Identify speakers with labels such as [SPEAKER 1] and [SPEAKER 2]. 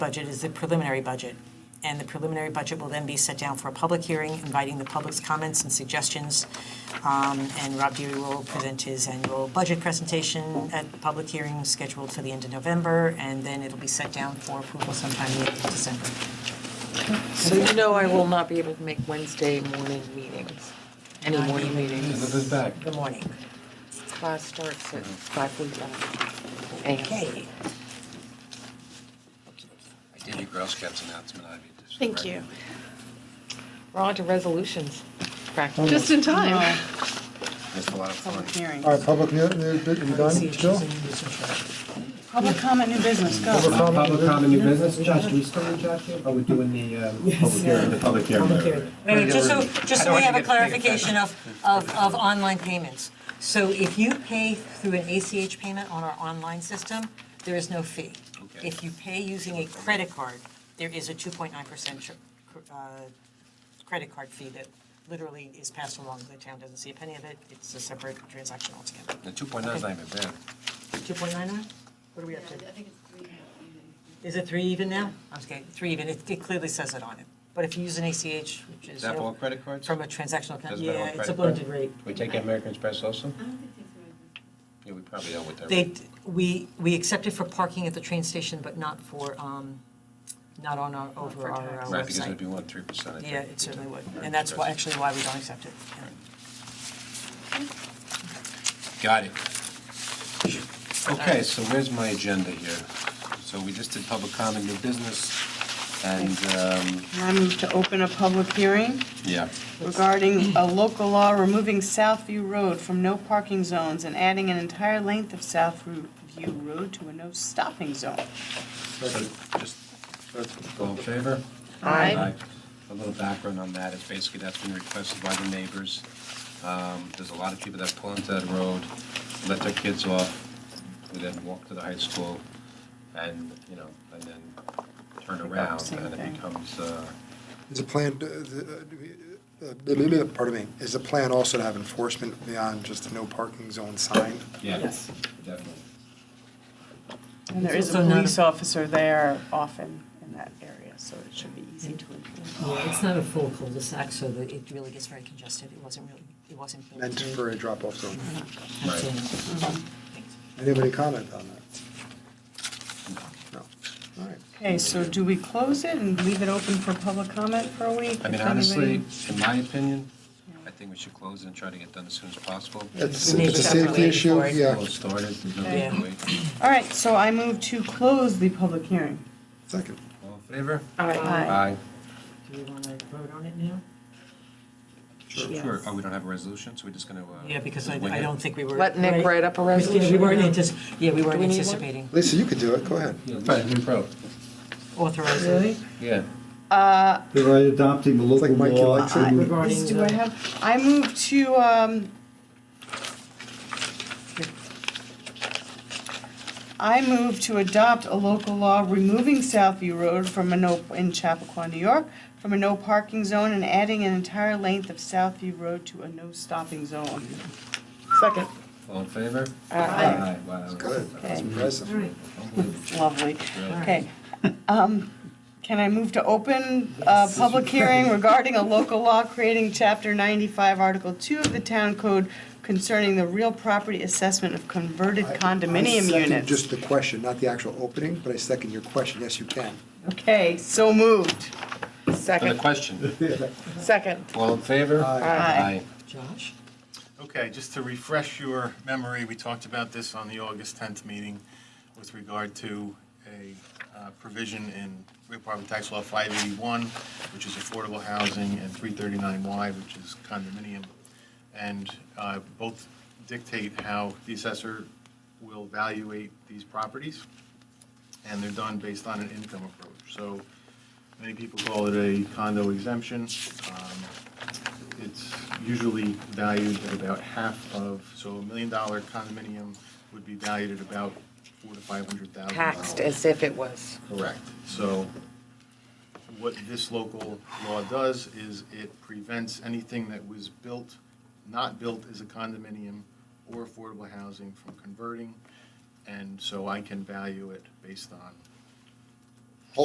[SPEAKER 1] budget is the preliminary budget. And the preliminary budget will then be set down for a public hearing, inviting the public's comments and suggestions. Um, And Rob Deary will present his annual budget presentation at the public hearing scheduled for the end of November, and then it'll be set down for approval sometime in December.
[SPEAKER 2] So you know I will not be able to make Wednesday morning meetings, any
[SPEAKER 1] Not
[SPEAKER 2] morning
[SPEAKER 1] even-
[SPEAKER 2] meetings.
[SPEAKER 3] This is back.
[SPEAKER 1] Good morning.
[SPEAKER 2] Class starts at five forty-five AM.
[SPEAKER 1] Okay.
[SPEAKER 3] I did your Girl Scouts announcement, Ivy. just for the
[SPEAKER 4] Thank you.
[SPEAKER 3] record.
[SPEAKER 2] We're on to resolutions, practically.
[SPEAKER 4] Just in time.
[SPEAKER 3] Missed a lot of fun.
[SPEAKER 5] All right, public, new- new bu- you done, Jill?
[SPEAKER 6] Public comment, new business,
[SPEAKER 5] Public
[SPEAKER 6] go.
[SPEAKER 3] Uh,
[SPEAKER 5] comment,
[SPEAKER 3] Public
[SPEAKER 5] new-
[SPEAKER 3] comment, new business, Josh, do we still need Josh here? Oh, we're doing the, uh, public hearing, the public hearing.
[SPEAKER 1] Public
[SPEAKER 3] right, right,
[SPEAKER 1] hearing.
[SPEAKER 3] right.
[SPEAKER 1] Wait, wait, just so, just
[SPEAKER 3] I
[SPEAKER 1] so
[SPEAKER 3] don't
[SPEAKER 1] we
[SPEAKER 3] want you
[SPEAKER 1] have a
[SPEAKER 3] to get big
[SPEAKER 1] clarification of, of, of online payments. So if you pay through an ACH payment on our online system, there is no fee.
[SPEAKER 3] Okay.
[SPEAKER 1] If you pay using a credit card, there is a two point nine percent uh, credit card fee that literally is passed along. The town doesn't see a penny of it. It's a separate transaction altogether.
[SPEAKER 3] The two point nine's not even bad.
[SPEAKER 1] Two point nine nine? What are we up to?
[SPEAKER 7] I think it's three and a half even.
[SPEAKER 1] Is it three even now? Okay, three even, it it clearly says it on it. But if you use an ACH, which is.
[SPEAKER 3] Is that
[SPEAKER 1] you know,
[SPEAKER 3] all credit cards?
[SPEAKER 1] From a transactional account,
[SPEAKER 3] Doesn't matter
[SPEAKER 1] yeah,
[SPEAKER 3] what
[SPEAKER 1] it's a
[SPEAKER 3] credit card.
[SPEAKER 1] blended rate.
[SPEAKER 3] We take American Express also?
[SPEAKER 7] I don't think it takes away this.
[SPEAKER 3] Yeah, we probably owe it that.
[SPEAKER 1] They, we, we accept it for parking at the train station, but not for, um, not on our, over
[SPEAKER 6] for
[SPEAKER 1] our uh,
[SPEAKER 6] tax.
[SPEAKER 3] Right, because it'd be
[SPEAKER 1] website.
[SPEAKER 3] one, three percent.
[SPEAKER 1] Yeah, it certainly would, and that's why, actually why we don't accept it. Yeah.
[SPEAKER 3] Got it. Okay, so where's my agenda here? So we just did public comment, new business, and, um,
[SPEAKER 6] I move to open a public hearing
[SPEAKER 3] yeah.
[SPEAKER 6] regarding a local law removing Southview Road from no parking zones and adding an entire length of Southview Road to a no stopping zone.
[SPEAKER 3] So just, all in favor? Aye. A little background on that is basically that's been requested by the neighbors. Um, There's a lot of people that pull into that road, let their kids off, who then walk to the high school and, you know, and then turn around
[SPEAKER 6] same
[SPEAKER 3] and it
[SPEAKER 6] thing.
[SPEAKER 3] becomes, uh,
[SPEAKER 5] Is the plan, uh, the- uh, uh, pardon me, is the plan also to have enforcement beyond just the no parking zone sign?
[SPEAKER 3] yeah,
[SPEAKER 1] Yes.
[SPEAKER 3] definitely.
[SPEAKER 6] And there
[SPEAKER 1] It's
[SPEAKER 6] is a
[SPEAKER 1] also not a-
[SPEAKER 6] police officer there often in that area, so it should be easy to enforce.
[SPEAKER 1] Yeah, it's not a full cul-de-sac, so that it really gets very congested, it wasn't really, it wasn't. built
[SPEAKER 5] Meant
[SPEAKER 1] to-
[SPEAKER 5] for a drop-off zone.
[SPEAKER 1] That's
[SPEAKER 3] Right.
[SPEAKER 1] in- Mm-hmm.
[SPEAKER 5] Anybody comment on that? No. All right.
[SPEAKER 6] Okay, so do we close it and leave it open for public comment for a week?
[SPEAKER 3] I mean,
[SPEAKER 6] if anybody-
[SPEAKER 3] honestly, in my opinion, I think we should close it and try to get done as soon as possible.
[SPEAKER 5] It's
[SPEAKER 1] Maybe
[SPEAKER 5] it's a
[SPEAKER 1] that's what
[SPEAKER 5] safety
[SPEAKER 1] we're
[SPEAKER 5] issue,
[SPEAKER 1] waiting
[SPEAKER 5] yeah.
[SPEAKER 3] Well, it started, there's no
[SPEAKER 1] Yeah.
[SPEAKER 3] need to wait.
[SPEAKER 6] All right, so I move to close the public hearing.
[SPEAKER 5] Second.
[SPEAKER 3] All in favor?
[SPEAKER 6] Aye.
[SPEAKER 1] Do we want to vote on it now?
[SPEAKER 3] Sure, oh, we don't have a resolution, so we're just gonna, uh.
[SPEAKER 1] Yeah, because I,
[SPEAKER 3] wing
[SPEAKER 1] I
[SPEAKER 3] it?
[SPEAKER 1] don't think we were.
[SPEAKER 2] Let Nick
[SPEAKER 1] right.
[SPEAKER 2] write up a
[SPEAKER 1] Yeah,
[SPEAKER 2] resolution.
[SPEAKER 1] we weren't antici, yeah, we weren't
[SPEAKER 2] we need one?
[SPEAKER 1] anticipating
[SPEAKER 5] Lisa, you could do it, go ahead.
[SPEAKER 3] Yeah, Lisa, you pro.
[SPEAKER 1] authorizing.
[SPEAKER 6] Really?
[SPEAKER 3] Yeah.
[SPEAKER 6] Uh,
[SPEAKER 8] Provide adopting the
[SPEAKER 5] It's like
[SPEAKER 8] local
[SPEAKER 5] Mike
[SPEAKER 8] law.
[SPEAKER 5] likes
[SPEAKER 6] I-
[SPEAKER 5] it.
[SPEAKER 1] Regarding
[SPEAKER 6] this- do I
[SPEAKER 1] the-
[SPEAKER 6] have, I move to, um, I move to adopt a local law removing Southview Road from a no, in Chappaqua, New York, from a no parking zone and adding an entire length of Southview Road to a no stopping zone. Second.
[SPEAKER 3] All in favor?
[SPEAKER 6] Aye.
[SPEAKER 3] Wow. that was-
[SPEAKER 5] Good, that's
[SPEAKER 6] Okay.
[SPEAKER 5] impressive.
[SPEAKER 3] unbelievable.
[SPEAKER 6] Lovely,
[SPEAKER 3] Really.
[SPEAKER 6] okay. Um, Can I move to open a public hearing regarding a local law creating Chapter 95, Article 2 of the Town Code concerning the real property assessment of converted
[SPEAKER 5] I- I
[SPEAKER 6] condominium
[SPEAKER 5] second
[SPEAKER 6] units?
[SPEAKER 5] Just the question, not the actual opening, but I second your question, yes, you can.
[SPEAKER 6] Okay, so moved.
[SPEAKER 3] So the
[SPEAKER 2] Second,
[SPEAKER 3] question,
[SPEAKER 2] second.
[SPEAKER 3] all in favor?
[SPEAKER 6] Aye.
[SPEAKER 1] Josh?
[SPEAKER 9] Okay, just to refresh your memory, we talked about this on the August 10th meeting with regard to a uh, provision in real property tax law 581, which is affordable housing, and 339Y, which is condominium. And uh, both dictate how the assessor will evaluate these properties, and they're done based on an income approach. So many people call it a condo exemption. Um, it's usually valued at about half of, so a million dollar condominium would be valued at about four to five hundred thousand dollars.
[SPEAKER 2] Taxed as if it was.
[SPEAKER 9] Correct. So what this local law does is it prevents anything that was built, not built as a condominium or affordable housing from converting. And so I can value it based on